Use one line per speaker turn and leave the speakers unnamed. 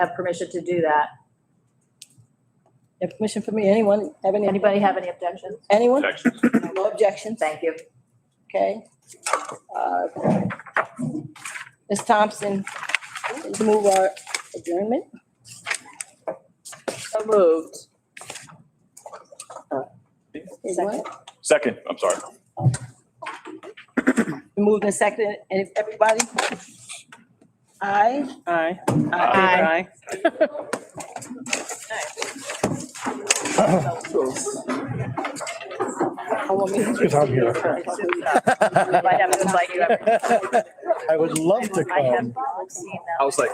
have permission to do that.
You have permission for me, anyone have any?
Anybody have any objections?
Anyone?
Objection.
No objections?
Thank you.
Okay. Uh, Ms. Thompson, please move our adjournment.
So moved.
Uh, Is
Second.
what?
Second, I'm sorry.
Moved and seconded, and if everybody? Aye.
Aye.
Aye.
I want me to-
If I'm here.
Might have to invite you every-
I would love to
I
come.
have seen that.
I was like,